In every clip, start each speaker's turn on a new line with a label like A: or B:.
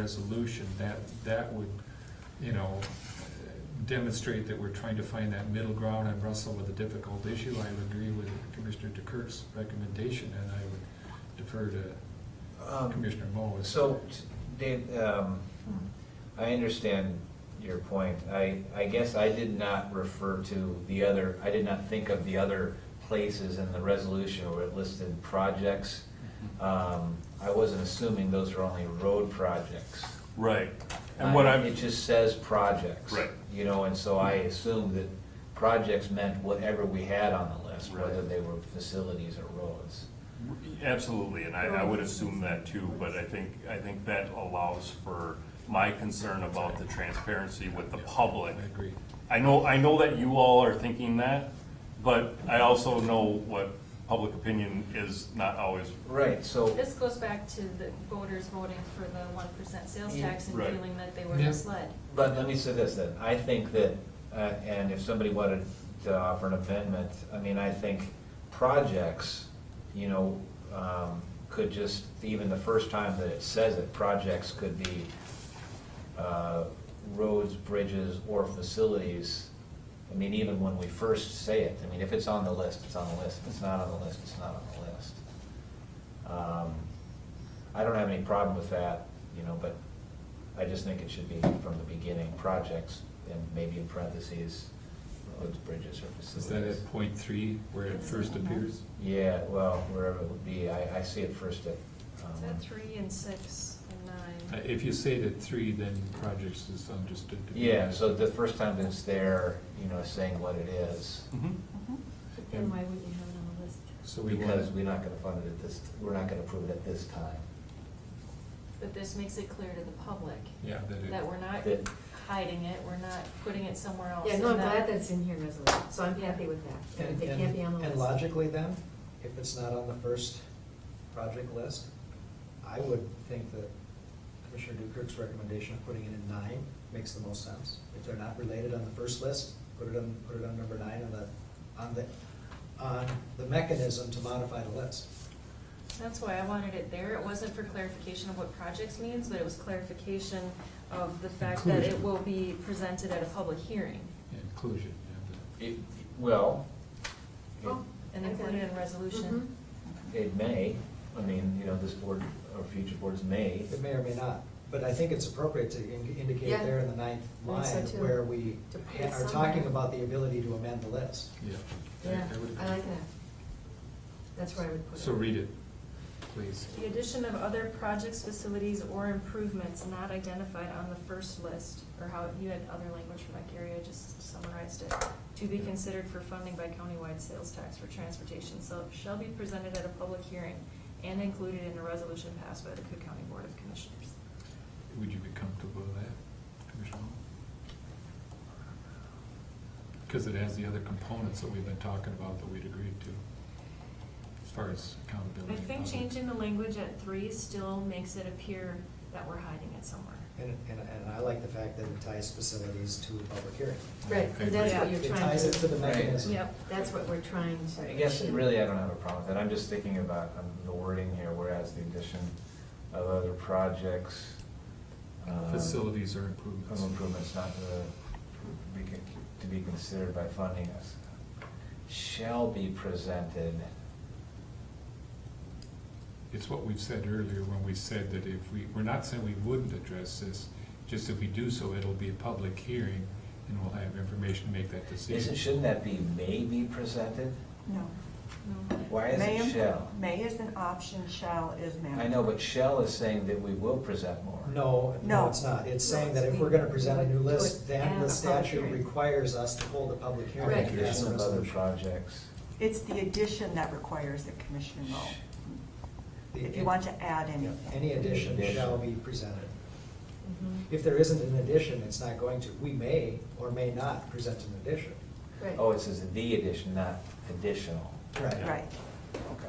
A: resolution, that, that would, you know, demonstrate that we're trying to find that middle ground and wrestle with a difficult issue. I would agree with Commissioner DeKirk's recommendation, and I would defer to
B: Um,
A: Commissioner Moe.
B: So, t- Dave, um, I understand your point. I, I guess I did not refer to the other, I did not think of the other places in the resolution where it listed projects. Um, I wasn't assuming those are only road projects.
C: Right, and what
B: I-
C: I'm,
B: It just says projects.
C: Right.
B: You know, and so I assumed that projects meant whatever we had on the list,
C: Right.
B: whether they were facilities or roads.
C: absolutely, and I, I would assume that too, but I think, I think that allows for my concern about the transparency with the
A: I
C: public.
A: agree.
C: I know, I know that you all are thinking that, but I also know what public opinion is not always
B: Right, so.
D: This goes back to the voters voting for the one percent sales
B: Yeah.
D: tax and
C: Right.
D: feeling that they were
A: Yeah.
D: misled.
B: But let me say this then, I think that, uh, and if somebody wanted to offer an amendment, I mean, I think projects, you know, um, could just, even the first time that it says it, projects could be uh, roads, bridges, or facilities. I mean, even when we first say it, I mean, if it's on the list, it's on the list, if it's not on the list, it's not on the list. Um, I don't have any problem with that, you know, but I just think it should be from the beginning, projects, and maybe in parentheses, roads, bridges, or
A: Is that
B: facilities.
A: at point three, where it first appears?
B: Yeah, well, wherever it would be, I, I see it first at,
D: Is that
B: um,
D: three and six and
A: Uh,
D: nine?
A: If you say it at three, then projects is understood to be.
B: yeah, so the first time that it's there, you know, saying what it is,
C: Mm-hmm.
D: Mm-hmm.
E: But Then why wouldn't you have it on the list?
A: So we want.
B: because we're not gonna fund it at this, we're not gonna approve it at this time.
D: But this makes it clear to the public
A: Yeah, that it.
D: that we're not
B: That-
D: hiding it, we're not putting it somewhere else.
E: Yeah, no, I'm
D: and
E: glad
D: that-
E: that's in here resolution, so I'm happy with that.
F: And-
E: If it
F: and-
E: can't be on the list.
F: And logically then, if it's not on the first project list, I would think that Commissioner Dukirk's recommendation of putting it in nine makes the most sense. If they're not related on the first list, put it on, put it on number nine on the, on the, on the mechanism to modify the list.
D: That's why I wanted it there. It wasn't for clarification of what projects means, but it was clarification of the fact that it
A: Inclusion.
D: will be presented at a public hearing
A: Inclusion, yeah.
B: It, well, it-
E: Oh,
D: and
E: I got
D: included
E: it.
D: in
E: Mm-hmm.
D: resolution.
B: it may, I mean, you know, this board, or future boards may,
F: It may or may not, but I think it's appropriate to in- indicate
E: Yeah.
F: there in the ninth
E: I think so
F: line
E: too.
F: where we
E: To put
F: ha-
E: it
F: are
E: somewhere.
F: talking about the ability to amend the list.
A: Yeah.
E: Yeah,
A: I would-
E: I like that. That's where I would put it.
A: So read it, please.
D: The addition of other projects, facilities, or improvements not identified on the first list, or how, you had other language from that, Gary, I just summarized it. To be considered for funding by countywide sales tax for transportation, so shall be presented at a public hearing and included in a resolution passed by the Cook County Board of Commissioners.
A: Would you be comfortable with that, Commissioner? Because it has the other components that we've been talking about that we'd agreed to, as far as accountability.
D: I
A: and
D: think
A: other-
D: changing the language at three still makes it appear that we're hiding it somewhere.
F: And, and, and I like the fact that it ties facilities to a public hearing.
E: Right,
A: I
E: and that's
D: agree.
E: what you're
F: It
E: trying to.
F: ties it to the
B: Right.
F: mechanism.
D: Yep.
E: That's what we're trying to.
B: I guess,
E: achieve.
B: really, I don't have a problem with that, I'm just thinking about um, the wording here, whereas the addition of other projects. um,
A: Facilities or
B: Home
A: improvements.
B: improvements not to be, con- to be considered by funding us, shall be presented,
A: It's what we've said earlier when we said that if we, we're not saying we wouldn't address this, just if we do so, it'll be a public hearing and we'll have information to make that
B: isn't,
A: decision.
B: shouldn't that be may be presented?
G: No.
D: No.
B: Why is
G: May
B: it
G: and-
B: shall?
G: May is an option, shall is mandatory.
B: I know, but shall is saying that we will present more.
F: No, no,
G: No.
F: it's not. It's
E: No,
F: saying
E: it's
F: that if we're
E: the-
F: gonna present a new list,
E: to it
F: then
E: and
F: the
E: a public
F: statute
E: hearing.
F: requires us to hold a public hearing.
E: Right.
F: to pass
B: Addition
F: a
B: of other
F: resolution.
B: projects.
G: It's the addition that requires a commissioner vote.
F: The-
G: If you want to add anything.
F: Any addition
B: Addition.
F: shall be presented.
E: Mhm.
F: If there isn't an addition, it's not going to. We may or may not present an addition.
E: Right.
B: Oh, it says the addition, not additional.
G: Right.
B: Okay.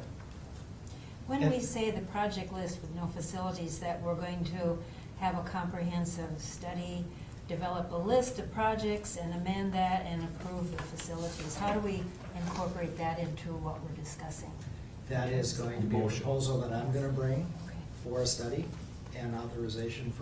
H: When
F: And-
H: we say the project list with no facilities, that we're going to have a comprehensive study, develop a list of projects and amend that and approve the facilities, how do we incorporate that into what we're discussing?
F: That is going to be a
A: Motion.
F: proposal that I'm gonna bring
H: Okay.
F: for a study and authorization for